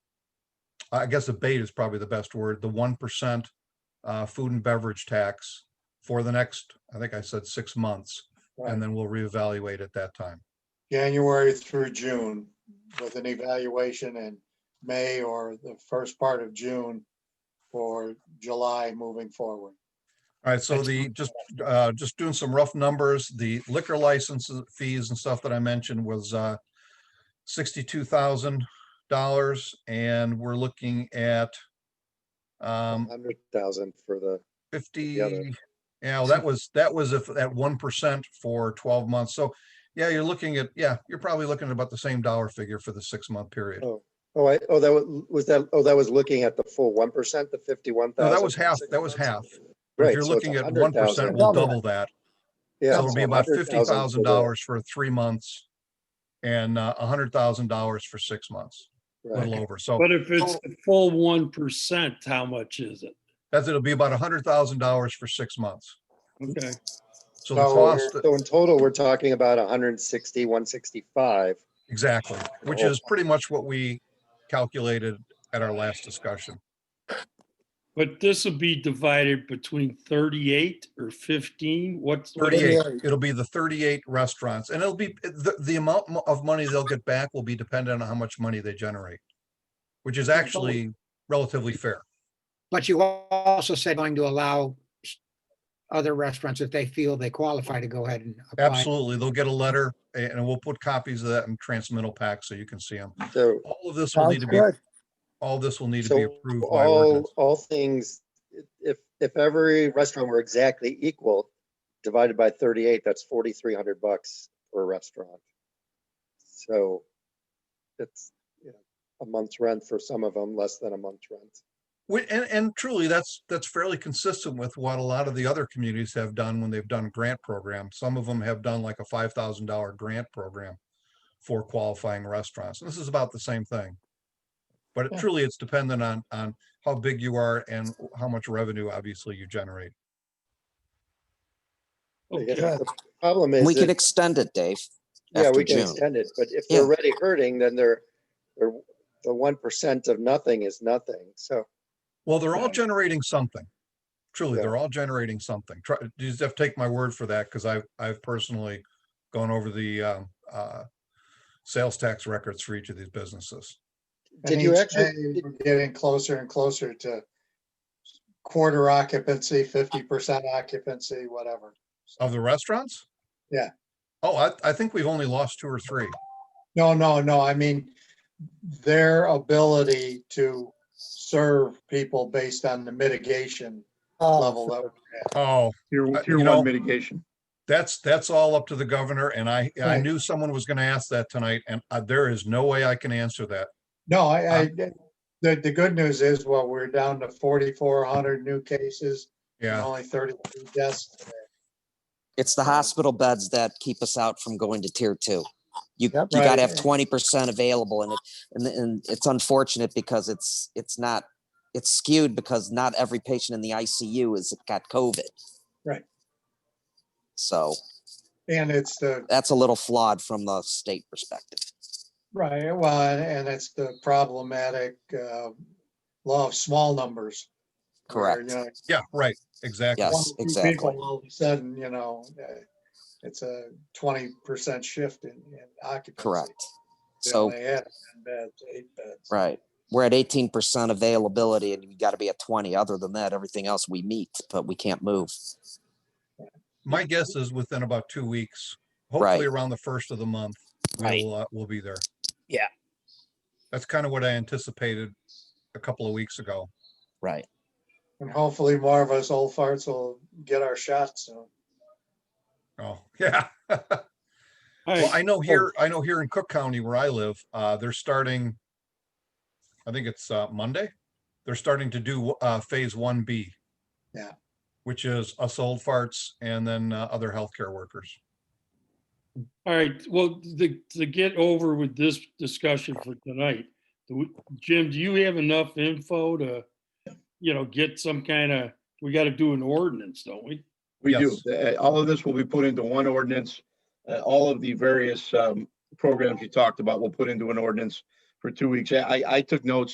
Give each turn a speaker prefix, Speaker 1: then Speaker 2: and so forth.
Speaker 1: I guess abate is probably the best word, the one percent uh, food and beverage tax for the next, I think I said six months,
Speaker 2: Right.
Speaker 1: and then we'll reevaluate at that time.
Speaker 2: January through June with an evaluation in May or the first part of June or July moving forward.
Speaker 1: All right, so the, just, uh, just doing some rough numbers, the liquor licenses, fees and stuff that I mentioned was, uh, sixty-two thousand dollars, and we're looking at, um,
Speaker 3: Hundred thousand for the,
Speaker 1: fifty,
Speaker 3: other.
Speaker 1: yeah, well, that was, that was if, at one percent for twelve months, so, yeah, you're looking at, yeah, you're probably looking at about the same dollar figure for the six-month period.
Speaker 3: oh, oh, I, oh, that was, was that, oh, that was looking at the full one percent, the fifty-one
Speaker 1: No,
Speaker 3: thousand.
Speaker 1: that was half, that was half. But
Speaker 3: Right,
Speaker 1: If you're
Speaker 3: so it's
Speaker 1: looking at one
Speaker 3: 100,000.
Speaker 1: percent, we'll double that.
Speaker 3: Yeah.
Speaker 1: So it'll be
Speaker 3: so
Speaker 1: about fifty
Speaker 3: 100,000 for
Speaker 1: thousand
Speaker 3: the-
Speaker 1: dollars for three months and uh, a hundred thousand dollars for six months, a
Speaker 3: right.
Speaker 1: little over. So
Speaker 4: But if it's
Speaker 1: Oh.
Speaker 4: a full one percent, how much is it?
Speaker 1: that's, it'll be about a hundred thousand dollars for six months.
Speaker 4: Okay,
Speaker 1: So the
Speaker 2: So
Speaker 1: cost,
Speaker 3: So in total, we're talking about a hundred and sixty, one sixty-five.
Speaker 1: exactly, which
Speaker 3: Oh.
Speaker 1: is pretty much what we calculated at our last discussion.
Speaker 4: but this will be divided between thirty-eight or fifteen? What's? what-
Speaker 1: Thirty-eight, it'll be the thirty-eight restaurants and it'll be, the, the amount mo- of money they'll get back will be dependent on how much money they generate, which is actually relatively fair.
Speaker 5: But you al- also said going to allow s- other restaurants, if they feel they qualify, to go ahead and apply.
Speaker 1: Absolutely. They'll get a letter a- and we'll put copies of that in transmittal packs so you can see them.
Speaker 3: So,
Speaker 1: All of this will need to be, all this will need to be
Speaker 3: so
Speaker 1: approved by
Speaker 3: all,
Speaker 1: ordinance.
Speaker 3: all things, if, if every restaurant were exactly equal, divided by thirty-eight, that's forty-three hundred bucks per restaurant. So it's, you know, a month's rent for some of them, less than a month's rent.
Speaker 1: We- And, and truly, that's, that's fairly consistent with what a lot of the other communities have done when they've done grant programs. Some of them have done like a five thousand dollar grant program for qualifying restaurants. This is about the same thing. But it
Speaker 2: Yeah.
Speaker 1: truly, it's dependent on, on how big you are and how much revenue obviously you generate.
Speaker 3: I guess
Speaker 4: Okay.
Speaker 3: The problem is.
Speaker 6: We could
Speaker 3: that-
Speaker 6: extend it, Dave.
Speaker 3: Yeah,
Speaker 6: after
Speaker 3: we can
Speaker 6: June.
Speaker 3: extend it, but if they're
Speaker 6: Yeah.
Speaker 3: already hurting, then they're, they're, the one percent of nothing is nothing, so.
Speaker 1: Well, they're all
Speaker 4: Right.
Speaker 1: generating something. Truly,
Speaker 3: Yeah.
Speaker 1: they're all generating something. Try, you just have to take my word for that because I've, I've personally gone over the, um, uh, sales tax records for each of these businesses.
Speaker 2: And
Speaker 3: Did you
Speaker 2: each
Speaker 3: actually-
Speaker 2: day,
Speaker 3: did-
Speaker 2: We're getting closer and closer to quarter occupancy, fifty percent occupancy, whatever.
Speaker 1: Of the restaurants?
Speaker 2: Yeah.
Speaker 1: Oh, I, I think we've only lost two or three.
Speaker 2: No, no, no, I mean, their ability to serve people based on the mitigation level that we're at.
Speaker 1: Oh,
Speaker 7: Tier,
Speaker 1: Uh,
Speaker 7: tier
Speaker 1: you know-
Speaker 7: one mitigation.
Speaker 1: that's, that's all up to the governor and I, I
Speaker 2: Right.
Speaker 1: knew someone was gonna ask that tonight and uh, there is no way I can answer that.
Speaker 2: No, I, I, the, the good news is, well, we're down to forty-four hundred new cases. and
Speaker 1: Yeah,
Speaker 2: Only thirty-two deaths. today.
Speaker 6: It's the hospital beds that keep us out from going to tier two. You, you
Speaker 2: Right.
Speaker 6: gotta have twenty percent available and it, and, and it's unfortunate because it's, it's not, it's skewed because not every patient in the ICU has got COVID.
Speaker 2: Right.
Speaker 6: So
Speaker 2: And it's the,
Speaker 6: that's a little flawed from the state perspective.
Speaker 2: right, well, and- and it's the problematic, uh, law of small numbers. where, you
Speaker 6: Correct.
Speaker 2: know,
Speaker 1: yeah, right, exactly.
Speaker 6: Yes,
Speaker 2: one or two
Speaker 6: exactly.
Speaker 2: people All of a sudden, you know, uh, it's a twenty percent shift in, in occupancy.
Speaker 6: Correct.
Speaker 2: Then
Speaker 6: So,
Speaker 2: They had ten beds, eight beds.
Speaker 6: right. We're at eighteen percent availability and you gotta be at twenty. Other than that, everything else we meet, but we can't move.
Speaker 1: My guess is within about two weeks, hopefully around the first of the month,
Speaker 6: Right.
Speaker 1: we'll, uh, we'll be there.
Speaker 6: Yeah.
Speaker 1: That's kind of what I anticipated a couple of weeks ago.
Speaker 6: Right.
Speaker 2: And hopefully more of us old farts will get our shots soon.
Speaker 1: Oh, yeah.
Speaker 4: All
Speaker 1: Well,
Speaker 4: right,
Speaker 1: I know here, I know here in Cook County where I live, uh, they're starting, I think it's, uh, Monday. They're starting to do, uh, phase one B.
Speaker 2: Yeah.
Speaker 1: Which is us old farts and then, uh, other healthcare workers.
Speaker 4: all right. Well, to, to get over with this discussion for tonight, do we- Jim, do you have enough info to, you know, get some kind of, we got to do an ordinance, don't we?
Speaker 7: We do. Uh, All of this will be put into one ordinance. Uh, All of the various um, programs you talked about will put into an ordinance for two weeks. I, I took notes